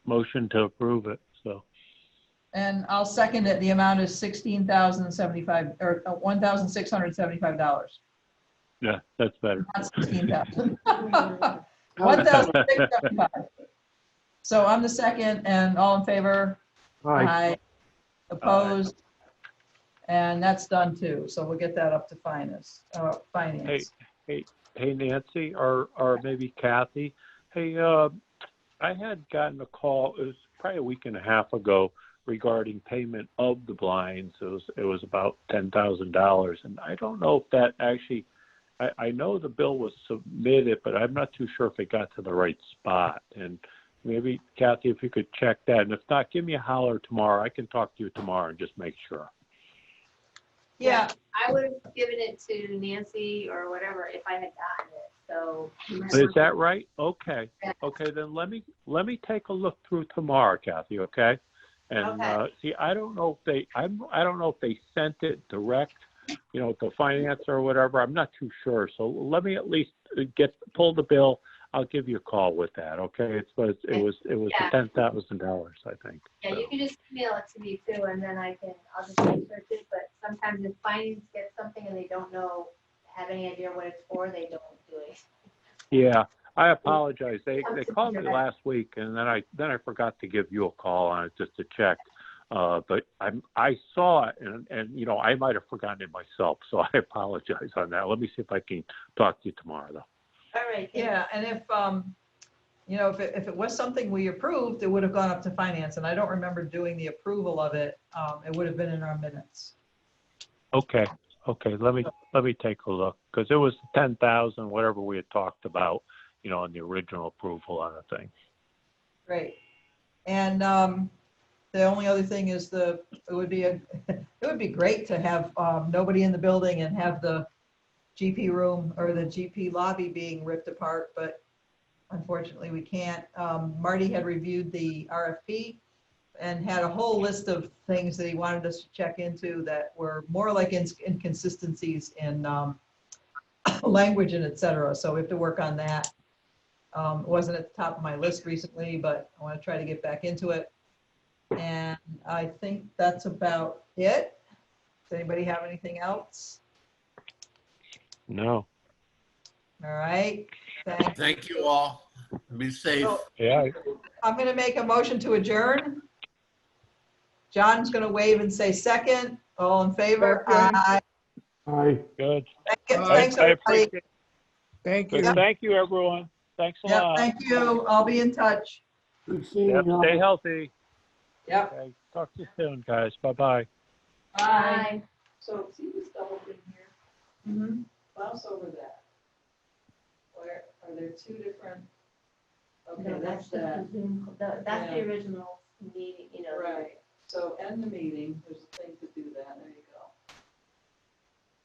motion to approve it, so. And I'll second it. The amount is sixteen thousand seventy-five, or uh, one thousand six hundred seventy-five dollars. Yeah, that's better. Not sixteen thousand. One thousand six seventy-five. So I'm the second, and all in favor? Aye. Opposed? And that's done too, so we'll get that up to finance, uh, finance. Hey Nancy, or, or maybe Kathy, hey, uh, I had gotten a call, it was probably a week and a half ago regarding payment of the blinds. It was, it was about ten thousand dollars and I don't know if that actually, I, I know the bill was submitted, but I'm not too sure if it got to the right spot. And maybe Kathy, if you could check that, and if not, give me a holler tomorrow. I can talk to you tomorrow and just make sure. Yeah, I would have given it to Nancy or whatever if I had gotten it, so. Is that right? Okay, Yeah. okay, then let me, let me take a look through tomorrow, Kathy, okay? And, Okay. uh, see, I don't know if they, I'm, I don't know if they sent it direct, you know, to finance or whatever, I'm not too sure. So let me at least uh, get, pull the bill, I'll give you a call with that, okay? It's, was it was, it was Yeah. ten thousand dollars, I think. Yeah, you can just email it to me too, and then I can, I'll just research it, but sometimes if finance gets something and they don't know, have any idea what it's for, they don't do it. Yeah, I apologize, they, That's they called me okay. last week and then I, then I forgot to give you a call on it just to check. Uh, but I'm, I saw it and, and, you know, I might have forgotten it myself, so I apologize on that. Let me see if I can talk to you tomorrow though. All right. thank you. yeah, and if, um, you know, if it, if it was something we approved, it would have gone up to finance, and I don't remember doing the approval of it. Um, it would have been in our minutes. Okay, okay, let me, let me take a look, cause it was ten thousand, whatever we had talked about, you know, in the original approval on the thing. Great. And um, the only other thing is the, it would be, a it would be great to have um, nobody in the building and have the GP room or the GP lobby being ripped apart, but unfortunately, we can't. Um, Marty had reviewed the RFP and had a whole list of things that he wanted us to check into that were more like ins- inconsistencies in um, language and et cetera. So we have to work on that. Um, it wasn't at the top of my list recently, but I want to try to get back into it. And I think that's about it. Does anybody have anything else? No, All right. Thank- Thank you all. Be safe. So yeah, I'm going to make a motion to adjourn. John's going to wave and say second. All in favor? Aye. Aye. good. Thanks, everybody. Thank you. Thank you, everyone. Thanks a Yeah, lot. thank you. I'll be in touch. Good seeing Yep, you. Stay healthy. Yep. Okay, talk to you soon, guys. Bye-bye. Bye. Bye. So see this double thing here, Mhm. mouse over that. Where, are there two different? No, Okay, that's that's the, that, Zoom- the- that's the original meeting, you know. right. So end the meeting, there's a thing